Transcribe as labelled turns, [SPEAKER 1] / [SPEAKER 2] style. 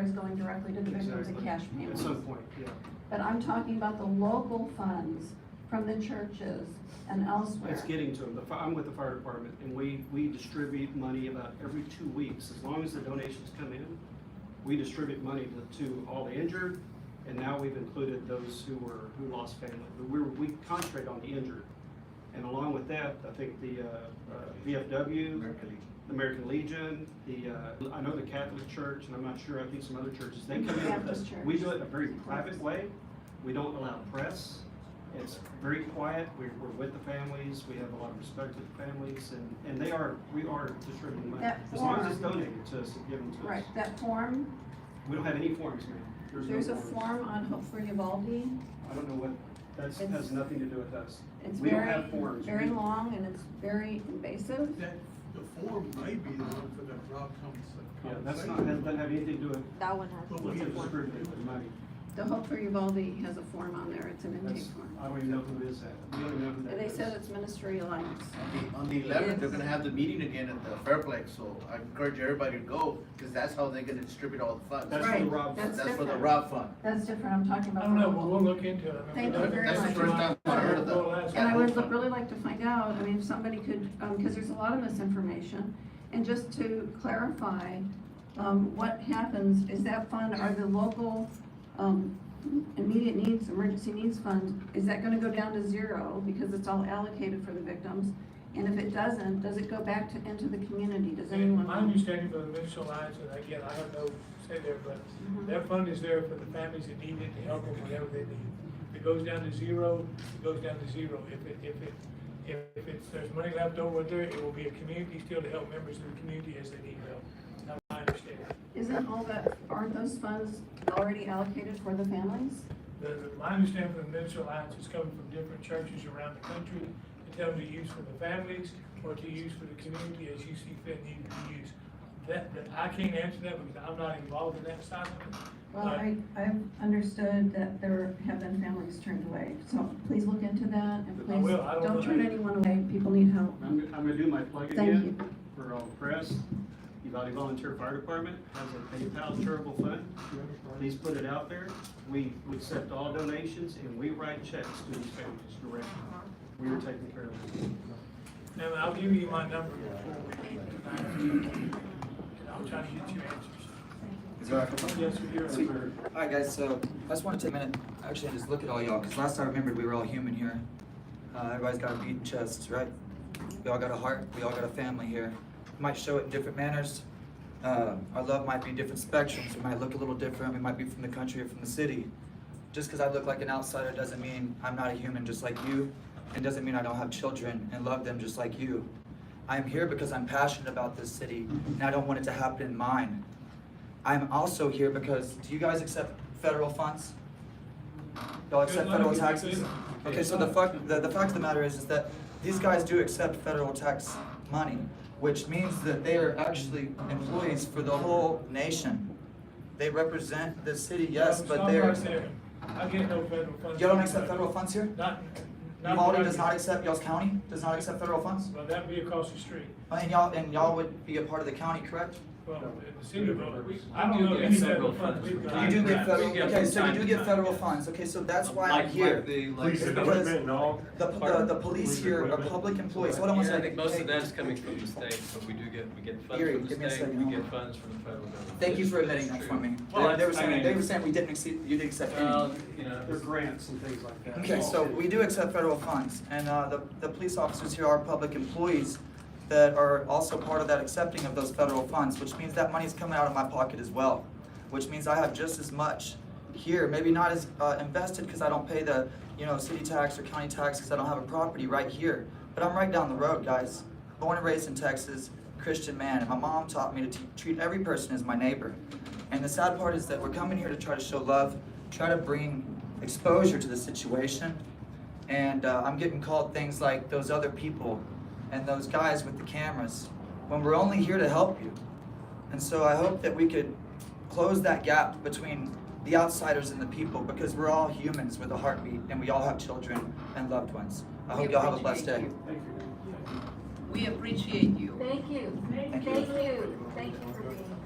[SPEAKER 1] is going directly to the victims of
[SPEAKER 2] Exactly.
[SPEAKER 1] cash
[SPEAKER 2] At
[SPEAKER 1] payments.
[SPEAKER 2] some point, yeah.
[SPEAKER 1] But I'm talking about the local funds from the churches and elsewhere.
[SPEAKER 2] It's getting to them. The fi- I'm with the fire department, and we, we distribute money about every two weeks. As long as the donations come in, we distribute money to, to all the injured, and now we've included those who were, who lost family. But we, we concentrate on the injured. And along with that, I think the, uh, uh, VFW,
[SPEAKER 3] American Legion.
[SPEAKER 2] the American Legion, the, uh, I know the Catholic Church, and I'm not sure, I think some other churches, they come in with us.
[SPEAKER 1] Baptist Church.
[SPEAKER 2] We do it in a very private way. We don't allow press. It's very quiet. We're, we're with the families. We have a lot of respect for the families and, and they are, we are distributing money.
[SPEAKER 1] That
[SPEAKER 2] As long as it's
[SPEAKER 1] form-
[SPEAKER 2] donated to us and given to us.
[SPEAKER 1] Right, that form,
[SPEAKER 2] We don't have any forms, ma'am. no
[SPEAKER 1] there's a
[SPEAKER 2] forms.
[SPEAKER 1] form on Hope for Uvalde.
[SPEAKER 2] I don't know what, that's,
[SPEAKER 1] It's-
[SPEAKER 2] has nothing to do with us.
[SPEAKER 1] It's
[SPEAKER 2] We don't
[SPEAKER 1] very,
[SPEAKER 2] have forms.
[SPEAKER 1] very
[SPEAKER 2] We-
[SPEAKER 1] long and it's very invasive.
[SPEAKER 4] That, the form may be the one for that Rob comes.
[SPEAKER 2] Yeah, that's not, that doesn't have anything to do with,
[SPEAKER 5] That one has.
[SPEAKER 4] But we
[SPEAKER 2] with
[SPEAKER 4] have
[SPEAKER 2] the
[SPEAKER 4] one.
[SPEAKER 2] distributing the money.
[SPEAKER 1] The Hope for Uvalde has a form on there, it's an intake
[SPEAKER 2] That's,
[SPEAKER 1] form.
[SPEAKER 2] I don't even know who is that. We don't even know who that
[SPEAKER 1] They
[SPEAKER 2] is.
[SPEAKER 1] said it's Ministry Alliance.
[SPEAKER 3] On the- On the eleventh, they're gonna have the meeting again at the Fairplex, so I encourage everybody to go, cause that's how they're gonna distribute all the funds.
[SPEAKER 2] That's for the
[SPEAKER 1] Right,
[SPEAKER 2] Rob.
[SPEAKER 1] that's
[SPEAKER 3] That's for the
[SPEAKER 1] different.
[SPEAKER 3] Rob Fund.
[SPEAKER 1] That's different, I'm talking
[SPEAKER 6] I
[SPEAKER 1] about.
[SPEAKER 6] don't know,
[SPEAKER 1] the-
[SPEAKER 6] but we'll look into it. I mean,
[SPEAKER 1] Thank you very
[SPEAKER 3] That's the
[SPEAKER 1] much.
[SPEAKER 3] first time I heard of
[SPEAKER 6] Well, that's-
[SPEAKER 3] that.
[SPEAKER 1] And I would lo- really like to find out, I mean, if somebody could, um, because there's a lot of misinformation. And just to clarify, um, what happens is that fund, are the local, um, immediate needs, emergency needs fund, is that gonna go down to zero because it's all allocated for the victims? And if it doesn't, does it go back to, into the community? Does anyone?
[SPEAKER 6] My understanding for the municipal alliance, and again, I don't know, say there, but
[SPEAKER 1] Mm-hmm.
[SPEAKER 6] that fund is there for the families that need it to help them whatever they need. If it goes down to zero, it goes down to zero. If it, if it, if, if it's, there's money left over there, it will be a community still to help members of the community as they need help. That's my understanding.
[SPEAKER 1] Isn't all that, aren't those funds already allocated for the families?
[SPEAKER 6] The, the- my understanding from the Minister Alliance is coming from different churches around the country to tell them to use for the families or to use for the community as you see fit needed to be used. That, that, I can't answer that because I'm not involved in that side of it.
[SPEAKER 1] Well, I, I've understood that there have been families turned away, so please look into that and
[SPEAKER 2] I
[SPEAKER 1] please,
[SPEAKER 6] will. I don't
[SPEAKER 1] don't
[SPEAKER 6] know.
[SPEAKER 1] turn anyone away, people need help.
[SPEAKER 2] I'm, I'm gonna do my plug
[SPEAKER 1] Thank
[SPEAKER 2] again for uh, all the press. Uvalde Volunteer Fire Department has a PayPal charitable fund. Please put it out there. We, we accept all donations and we write checks to these families directly. We are taking care of them.
[SPEAKER 6] Now, I'll give you my number before we leave tonight. And I'll try to get you answers. Yes, we do.
[SPEAKER 7] Sweet. Alright guys, so I just wanna take a minute, actually and just look at all y'all, cause last time I remembered we were all human here. Uh, everybody's got a beating chest, right? We all got a heart, we all got a family here. We Might show it in different manners. Uh, our love might be different spectrums, we might look a little different, we might be from the country or from the city. Just cause I look like an outsider doesn't mean I'm not a human just like you, and doesn't mean I don't have children and love them just like you. I am here because I'm passionate about this city, and I don't want it to happen in mine. I'm also here because, do you guys accept federal funds? Y'all accept
[SPEAKER 6] Yeah,
[SPEAKER 7] federal
[SPEAKER 6] we do.
[SPEAKER 7] taxes? Okay, so the fact, the, the fact of the matter is, is that these guys do accept federal tax money, which means that they are actually employees for the whole nation. They represent the city, yes, but
[SPEAKER 6] Stop
[SPEAKER 7] they're,
[SPEAKER 6] right there. I get no federal funds.
[SPEAKER 7] y'all don't accept federal funds here?
[SPEAKER 6] Not, not.
[SPEAKER 7] Uvalde does not accept, y'all's county does not accept federal funds?
[SPEAKER 6] Well, that'd be across the street.
[SPEAKER 7] And y'all, and y'all would be a part of the county, correct?
[SPEAKER 6] Well, in the city of Boulder, we, I don't
[SPEAKER 8] We do
[SPEAKER 6] know
[SPEAKER 8] get
[SPEAKER 6] any
[SPEAKER 8] several
[SPEAKER 6] federal funds.
[SPEAKER 8] funds.
[SPEAKER 6] we've
[SPEAKER 8] You
[SPEAKER 6] got.
[SPEAKER 7] You do get federal,
[SPEAKER 8] We get
[SPEAKER 7] okay,
[SPEAKER 8] from
[SPEAKER 7] so you
[SPEAKER 8] time
[SPEAKER 7] do
[SPEAKER 8] to
[SPEAKER 7] get
[SPEAKER 8] time,
[SPEAKER 7] federal
[SPEAKER 8] yes.
[SPEAKER 7] funds, okay, so that's why
[SPEAKER 8] Uh, Like-
[SPEAKER 7] I'm here.
[SPEAKER 8] like the- like the-
[SPEAKER 7] Because the, the, the police here are public employees, hold on one
[SPEAKER 8] Yeah, I
[SPEAKER 7] second.
[SPEAKER 8] think most of
[SPEAKER 7] Hey,
[SPEAKER 8] that's coming from the state, but we do get, we get funds
[SPEAKER 7] Gary,
[SPEAKER 8] from
[SPEAKER 7] give me a
[SPEAKER 8] the state,
[SPEAKER 7] second,
[SPEAKER 8] we
[SPEAKER 7] hold
[SPEAKER 8] get
[SPEAKER 7] on.
[SPEAKER 8] funds from the federal government.
[SPEAKER 7] Thank you for
[SPEAKER 8] It's
[SPEAKER 7] admitting that
[SPEAKER 8] true.
[SPEAKER 7] for me.
[SPEAKER 8] Well,
[SPEAKER 7] They, they were
[SPEAKER 8] that's- I
[SPEAKER 7] saying, they
[SPEAKER 8] mean,
[SPEAKER 7] were saying we didn't exceed, you didn't accept
[SPEAKER 8] Well,
[SPEAKER 7] anything.
[SPEAKER 8] you know.
[SPEAKER 2] Their grants and things like that.
[SPEAKER 7] Okay, so we do accept federal funds, and, uh, the, the police officers here are public employees that are also part of that accepting of those federal funds, which means that money's coming out of my pocket as well. Which means I have just as much here, maybe not as, uh, invested, cause I don't pay the, you know, city tax or county tax, cause I don't have a property right here. But I'm right down the road, guys. Born and raised in Texas, Christian man, and my mom taught me to t- treat every person as my neighbor. And the sad part is that we're coming here to try to show love, try to bring exposure to the situation. And uh, I'm getting called things like those other people and those guys with the cameras when we're only here to help you. And so I hope that we could close that gap between the outsiders and the people because we're all humans with a heartbeat and we all have children and loved ones. I hope y'all have a blessed day.
[SPEAKER 2] Thank you.
[SPEAKER 9] We appreciate you.
[SPEAKER 5] Thank you.
[SPEAKER 7] Thank you.
[SPEAKER 5] Thank you. Thank you for being